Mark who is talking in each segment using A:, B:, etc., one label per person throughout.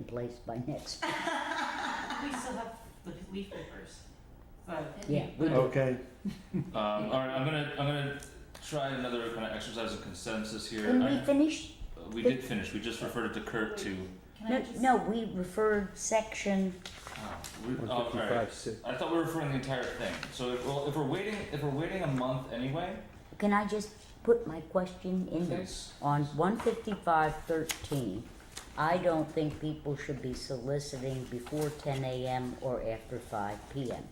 A: replaced by next.
B: We still have the leaf papers. But
A: Yeah, we do.
C: Okay,
D: Um, all right, I'm gonna I'm gonna try another kind of exercise of consensus here.
A: Can we
D: I,
A: finish?
D: we did finish. We just referred it to Kurt to. um,
B: can I
A: No,
B: just?
A: no, we referred section,
D: Oh, we,
C: one
D: oh, all
C: fifty-five,
D: right.
C: six.
D: I thought we were referring the entire thing. So if, well, if we're waiting, if we're waiting a month anyway,
A: can I just put my question in there?
D: please.
A: On one fifty-five thirteen, I don't think people should be soliciting before ten AM or after five PM.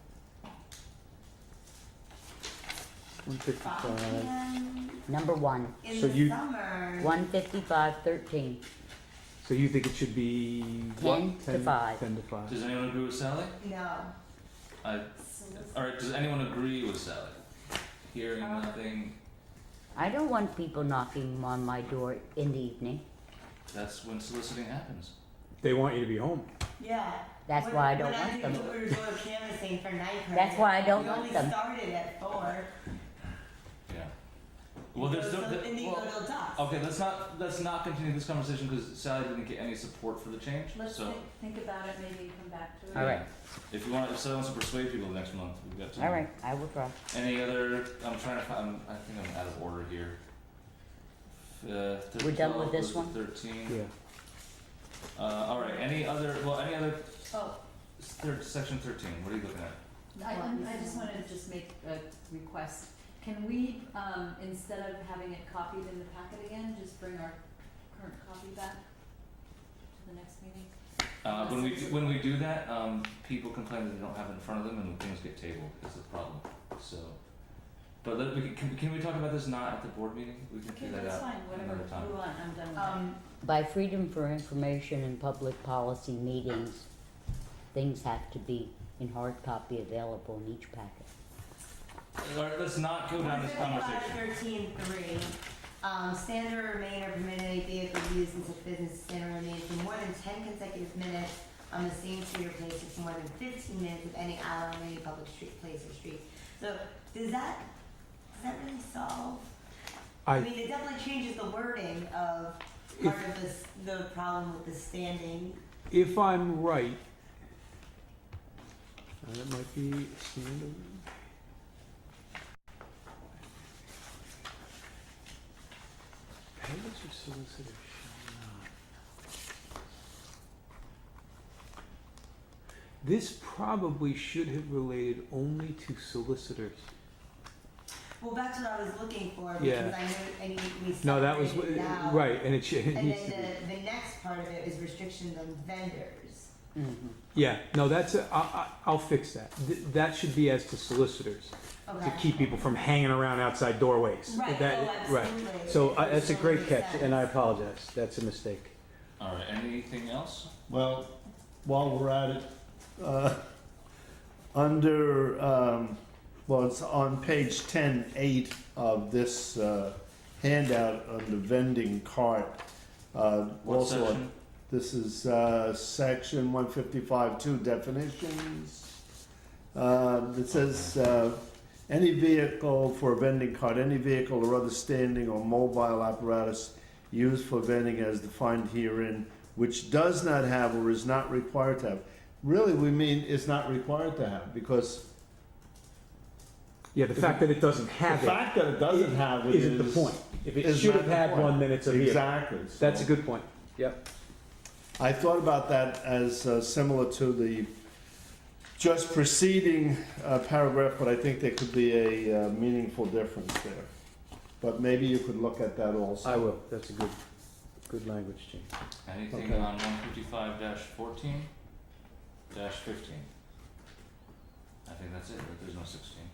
C: One
B: Five
C: fifty-five.
B: PM
A: Number one,
B: in
C: So
B: the
C: you-
B: summer.
A: one fifty-five thirteen,
C: So you think it should be what?
A: Ten to five.
C: Ten to five.
D: Does anyone agree with Sally?
B: No.
D: I, all right. Does anyone agree with Sally? Hearing
A: Uh-huh.
B: Uh.
D: nothing.
A: I don't want people knocking on my door in the evening.
D: That's when soliciting happens.
C: They want you to be home.
B: Yeah.
A: That's
B: When-
A: why I don't
B: when
A: want
B: I knew
A: them.
B: we were going canvassing for night parade.
A: That's why I don't want
B: We
A: them.
B: only started at four.
D: Yeah. Well, there's
B: So
D: no. there-
B: Indigo
D: well,
B: Little Ducks.
D: Okay, let's not let's not continue this conversation because Sally didn't get any support for the change.
E: Let's
D: so
E: think, think about it, maybe come back to it.
A: All right,
D: if you want, if Sally wants to persuade people next month, we've got time.
A: all right, I will try.
D: Any other? I'm trying to find. i I think I'm out of order here. Uh, thir-
A: We're done with
D: 12
A: this
D: goes to
A: one?
D: Thirteen.
C: Yeah.
D: Uh, all right. Any other? Well, any other?
E: Oh,
D: s- Third, section thirteen. What are you looking at?
E: I, I'm- I just wanted to just make a request. Can we, um, instead of having it copied in the packet again, just bring our current copy back to the next meeting?
D: Uh, when we do, when we do that, um, people complain that they don't have it in front of them, and things get tabled. Is the problem. So, but let, we can, can, can we talk about this not at the board meeting? We can
E: Okay,
D: figure that out.
E: that's fine, whatever,
D: another time.
E: move on, I'm done with that.
B: Um,
A: By freedom for information and public policy meetings, things have to be in hard copy available in each packet.
D: All right, let's not go down this conversation.
B: 155.13.3, um, stand or remain or permit any vehicle used in such business to stand or remain for more than ten consecutive minutes on the same street or place for more than fifteen minutes of any aisle on any public street, place or street. So, does that, does that really solve? I
C: I,
B: mean, it definitely changes the wording of part of this, the problem with the standing.
C: if I'm right, uh, that might be standard. Payers or solicitors shall not. This probably should have related only to solicitors.
B: Well, that's what I was looking for,
C: Yeah.
B: because I knew, I knew we
C: No, that was,
B: separated it out.
C: right, and it should, it
B: And
C: needs
B: then
C: to be.
B: the, the next part of it is restrictions on vendors.
A: Mm-hmm.
C: Yeah, no, that's, a- I, I, I'll fix that. Th- That should be as to solicitors,
B: Okay.
C: to keep people from hanging around outside doorways.
B: Right,
C: That-
B: oh,
C: right.
B: absolutely.
C: So uh, that's a great
B: Makes
C: catch, and I
B: sense.
C: apologize. That's a mistake.
D: All right. Anything else?
F: Well, while we're at it, uh, under, um, well, it's on page ten eight of this, uh, handout on the vending cart. Uh,
D: What
F: also,
D: section?
F: this is, uh, section one fifty-five two definitions. Uh, it says, uh, any vehicle for a vending cart, any vehicle or other standing or mobile apparatus used for vending as defined herein, which does not have or is not required to have. Really, we mean is not required to have, because
C: Yeah, the fact that it doesn't
F: the
C: have it
F: fact that it doesn't have it
C: isn't the
F: is.
C: point. If it
F: is
C: should
F: not
C: have
F: the
C: had
F: point.
C: one, then it's a vehicle.
F: Exactly.
C: That's a
F: So,
C: good point. Yep.
F: I thought about that as uh, similar to the just preceding uh, paragraph, but I think there could be a uh, meaningful difference there. But maybe you could look at that also.
C: I will. That's a good, good language change.
D: Anything
F: Okay.
D: on one fifty-five fourteen fifteen? I think that's it, right? There's no sixteen.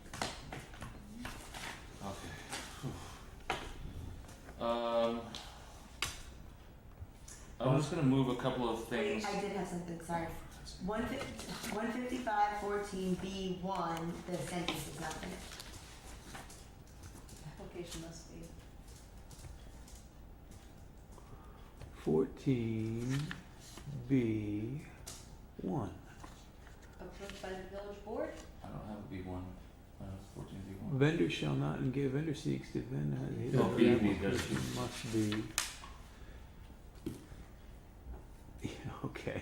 D: Okay. Whew. Um. I'm just gonna move a couple of
B: Wait,
D: things.
B: I did have something, sorry. One fifty, one fifty-five fourteen B one, the sentence is not finished.
E: Application must be,
C: Fourteen B one.
E: approved by the village board?
D: I don't have a B one, uh, fourteen B one.
C: Vendor shall not engage, vendor seeks to vend. his
D: Oh, B, B,
C: application
D: there's B.
C: Must be. Yeah, okay.